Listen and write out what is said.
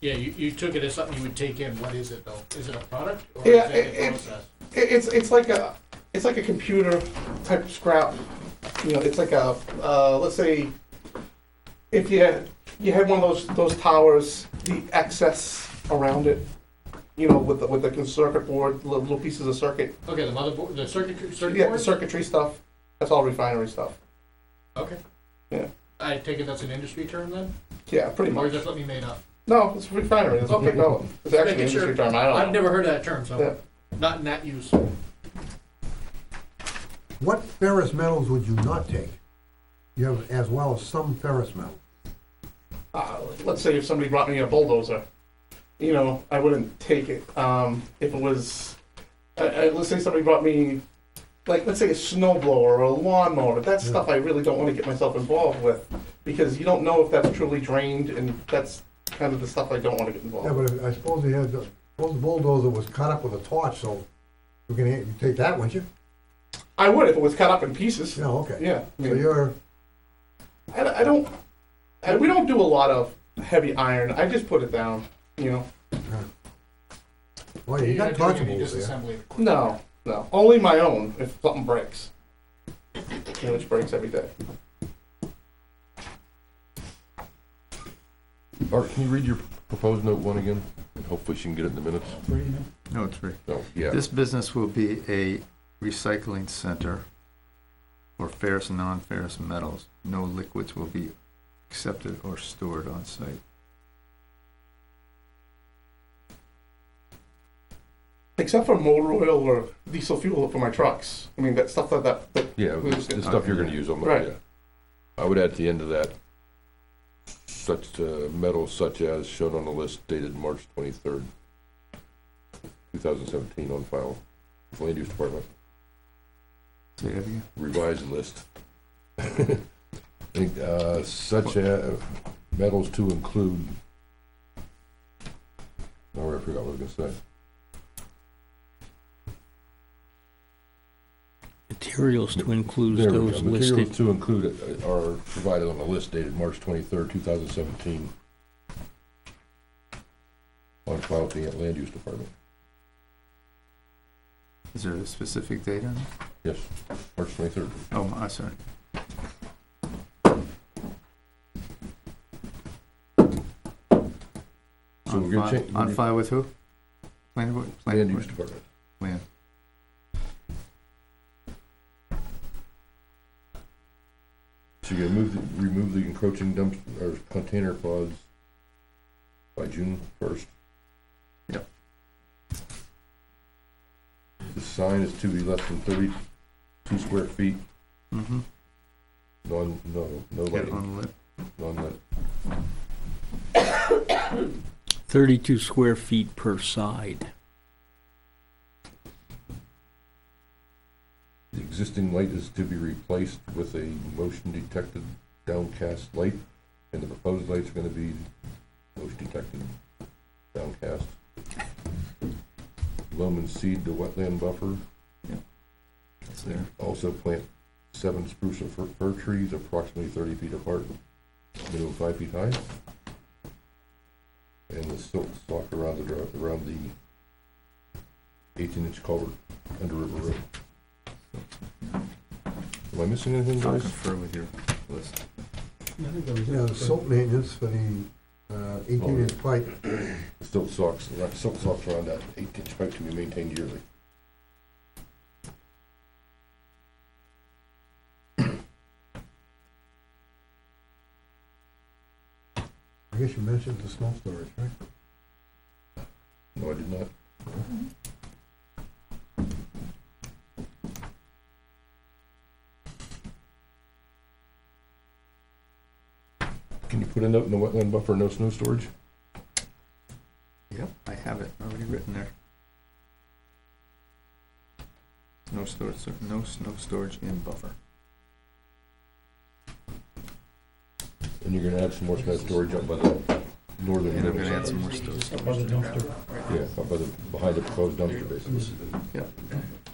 Yeah, you, you took it as something you would take in. What is it though? Is it a product or Yeah, is it a it- process? It, it's it's like a it's like a computer type scrap. You know, it's like a uh, let's say if you had, you had one of those those towers, the excess around it. You know, with the, with the circuit board, little, little pieces of circuit, Okay, the motherboard, the circuit, circuit yeah, the board? circuitry stuff. That's all refinery stuff. Okay. Yeah. I take it that's an industry term then? Yeah, pretty Or much. is that something you made up? No, it's refinery. That's what they Okay. call it. It's actually an Making sure. industry term. I don't know. I've never heard of that term, Yeah. so not in that use. What ferrous metals would you not take? You have, as well as some ferrous metal. uh, let's say if somebody brought me a bulldozer, you know, I wouldn't take it. Um, if it was, uh, uh, let's say somebody brought me, like, let's say a snowblower or a lawnmower. That's Yeah. stuff I really don't want to get myself involved with because you don't know if that's truly drained, and that's kind of the stuff I don't want to get Oh. involved. Yeah, with. but I suppose they had, suppose the bulldozer was cut up with a torch, so you can, you take that, wouldn't you? I would if it was cut up in pieces. No, okay. Yeah, I, So mean, you're, I, I don't. I, we don't do a lot of heavy iron. I just put it down. You know, well, uh, oh, you You're got not doing any torchables there. disassembly. no, no, only my own if something breaks, you know, which breaks every day. Art, can you read your proposed note one again? And hopefully she can get it in the minutes. No, it's free. No, yeah. This business will be a recycling center for ferrous and non-ferrous metals. No liquids will be accepted or stored on site. except for motor oil or diesel fuel for my trucks. I mean, that stuff like that. But Yeah, it's it's stuff you're gonna use on the, Right. yeah. I would add at the end of that, such uh, metals such as shown on the list dated March twenty-third, two thousand seventeen on file, with land use department, Say that again. revised list. I think, uh, Such as metals to include. Oh, I forgot what I was gonna say. Materials to include There we go. those Materials listed. to include uh, are provided on the list dated March twenty-third, two thousand seventeen. On file with the land use department. Is there a specific date on it? Yes, March twenty-third. Oh, I'm sorry. So On we're gonna file- change. On file with who? Planning board? Land Planning use board. department. Land. So you're gonna move, the- remove the encroaching dump, or container pods by June first? Yep. The sign is to be less than thirty-two square feet, Mm-hmm. non, no, no Get lighting, on the list. non-lit. Thirty-two square feet per side. The existing light is to be replaced with a motion detected downcast light, and the proposed light's gonna be motion detected downcast. Loam and seed the wetland buffer, It's there. also plant seven spruce or fir- fir trees approximately thirty feet apart, minimum five feet high. And the silt stalk around the, dri- around the eighteen-inch culvert under River Road. Am I missing anything, I'll guys? confer with your list. Yeah, the silt maintenance for the uh, eighteen inch pipe, Silt socks, silt socks around that eight-inch pipe to be maintained yearly. I guess you mentioned the snow storage, right? No, I did not. Can you put a note in the wetland buffer, no snow storage? Yep, I have it already written there. No storage, no snow storage in buffer. And you're gonna add some more snow storage up by the northern. And I'm middle gonna add some more Just storage. above the dumpster. Yeah, up by the, behind the proposed dumpster, basically. Yeah. uh,